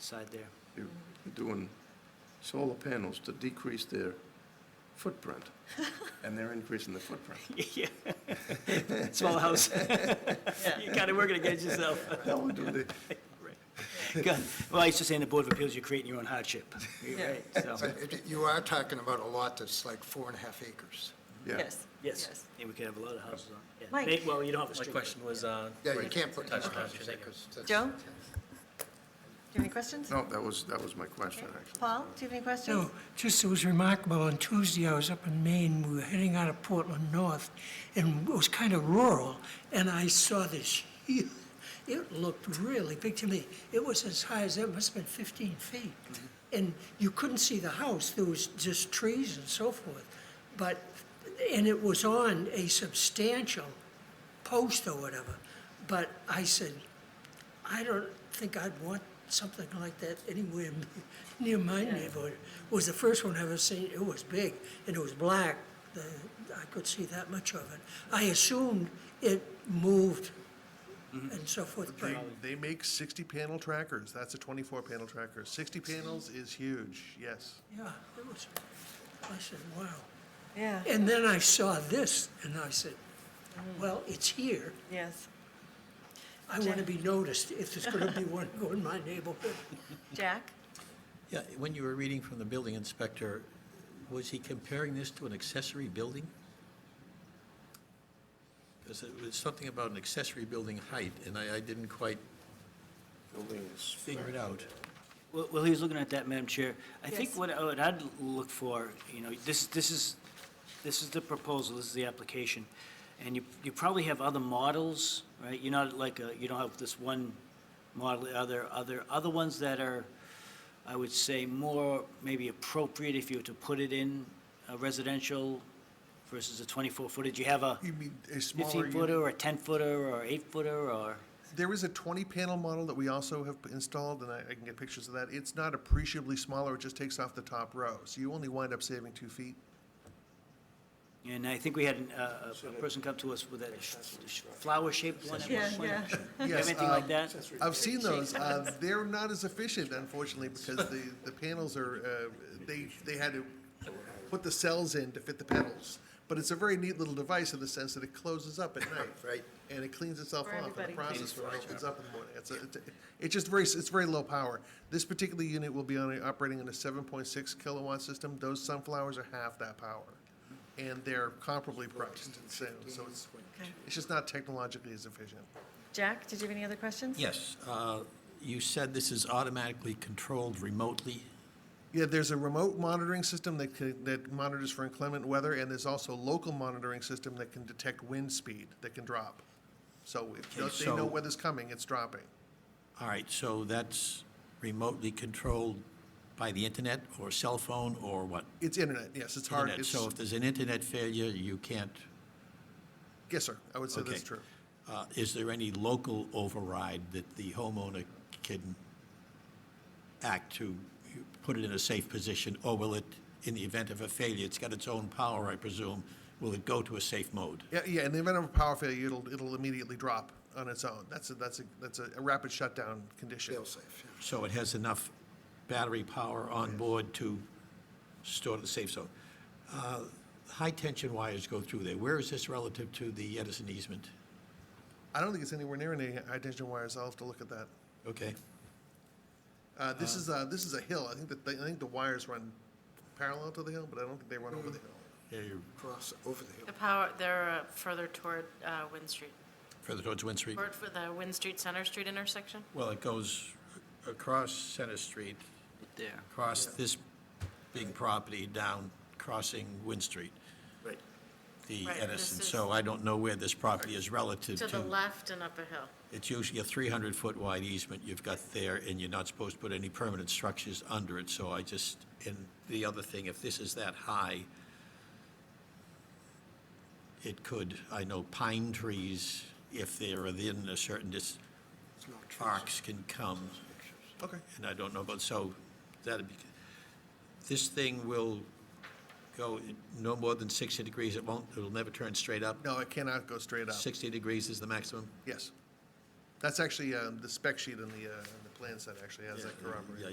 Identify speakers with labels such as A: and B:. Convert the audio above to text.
A: side there.
B: You're doing solar panels to decrease their footprint, and they're increasing the footprint.
A: Yeah, small house. You're kind of working against yourself.
B: That would do the,
A: Good. Well, I used to say in the Board of Appeals, you're creating your own hardship. You're
C: Yeah.
A: right,
D: So
A: so,
D: it- You are talking about a lot that's like four and a half acres.
B: yeah.
C: Yes.
A: yes, and we could have a lot of houses on. yeah.
C: Mike.
A: They- Well, you don't have a
E: My
A: street.
E: question was, uh,
D: Yeah, you can't put.
E: Touch on it.
D: Okay, 'cause that's-
C: Joe? Do you have any questions?
B: No, that was, that was my question, actually.
C: Paul, do you have any questions?
F: No, just it was remarkable, on Tuesday, I was up in Maine, we were heading out of Portland North, and it was kind of rural, and I saw this, huge- it looked really big to me. It was as high as, it must have been 15 feet. And you couldn't see the house, there was just trees and so forth. But, and it was on a substantial post or whatever. But I said, I don't think I'd want something like that anywhere near my neighborhood. It was the first one I ever seen, it was big, and it was black, the, I could see that much of it. I assumed it moved and so forth, but,
G: They, they make sixty panel trackers, that's a twenty-four panel tracker, sixty panels is huge, yes.
F: yeah, it was, I said, wow.
C: Yeah,
F: And then I saw this, and I said, well, it's here,
C: yes.
F: I wanna be noticed if there's gonna be one going in my neighborhood.
C: Jack?
H: Yeah, when you were reading from the building inspector, was he comparing this to an accessory building? Because it was something about an accessory building height, and I, I didn't quite figure it out.
A: Well, well, he was looking at that, Madam Chair. I think
C: Yes.
A: what I- what I'd look for, you know, this, this is, this is the proposal, this is the application, and you, you probably have other models, right? You're not like, a- you don't have this one model, other, other, other ones that are, I would say, more maybe appropriate if you were to put it in a residential versus a 24 footage. You have a
G: You mean a smaller
A: 15
G: unit?
A: footer or a 10 footer or 8 footer or?
G: There is a twenty panel model that we also have installed, and I, I can get pictures of that, it's not appreciably smaller, it just takes off the top row, so you only wind up saving two feet.
A: And I think we had an- uh, a- a a person come to us with a flower-shaped one at
C: Yeah,
A: one point.
C: yeah.
A: You have
G: Yes,
A: Anything like
G: um,
A: that?
G: I've seen those. Uh, they're not as efficient, unfortunately, because the, the panels are, uh, they, they had to put the cells in to fit the panels. But it's a very neat little device in the sense that it closes up at night.
D: Right.
G: And it cleans itself
C: For
G: off in
C: everybody.
G: the process when it opens up in the morning. It's, a- it's, a- it's just very, it's very low power. This particular unit will be on, a- operating on a seven point six kilowatt system. Those sunflowers are half that power. And they're comparably priced and sound, so it's,
C: Okay.
G: it's just not technologically as efficient.
C: Jack, did you have any other questions?
H: Yes, uh, you said this is automatically controlled remotely.
G: Yeah, there's a remote monitoring system that can, that monitors for inclement weather, and there's also local monitoring system that can detect wind speed that can drop. So if
H: Okay,
G: they know
H: so-
G: weather's coming, it's dropping.
H: All right, so that's remotely controlled by the internet or cell phone or what?
G: It's internet, yes, it's hard,
H: Internet,
G: it's,
H: so if there's an internet failure, you can't,
G: yes, sir, I would say that's
H: Okay.
G: true.
H: uh, is there any local override that the homeowner can act to put it in a safe position? Or will it, in the event of a failure, it's got its own power, I presume, will it go to a safe mode?
G: Yeah, yeah, in the event of a power failure, it'll, it'll immediately drop on its own. That's a, that's a, that's a rapid shutdown condition.
D: Fail safe, yeah.
H: So it has enough battery power on board to store the safe zone. Uh, High-tension wires go through there. Where is this relative to the Edison easement?
G: I don't think it's anywhere near any high tension wires, I'll have to look at that.
H: Okay,
G: Uh, this is, uh, this is a hill, I think that, the- I think the wires run parallel to the hill, but I don't think they run over the hill.
H: Yeah, you're
D: Cross over the hill.
I: The power, they're uh, further toward uh, Wind Street,
H: further towards Wind Street.
I: toward for the Wind Street, Center Street intersection.
H: Well, it goes across Center Street,
A: There.
H: across this big property down, crossing Wind Street,
D: Right.
H: the
I: Right,
H: Edison.
I: this is-
H: So I don't know where this property is relative
I: To the
H: to.
I: left and up a hill.
H: It's usually a 300-foot wide easement you've got there, and you're not supposed to put any permanent structures under it. So I just, and the other thing, if this is that high, it could, I know pine trees, if they're within a certain dis, arcs can come.
G: Okay.
H: And I don't know, but so that'd be, this thing will go no more than 60 degrees. It won't, it'll never turn straight up.
G: No, it cannot go straight up,
H: 60 degrees is the maximum.
G: yes. That's actually, um, the spec sheet and the, uh, and the plan set actually has that corroborated.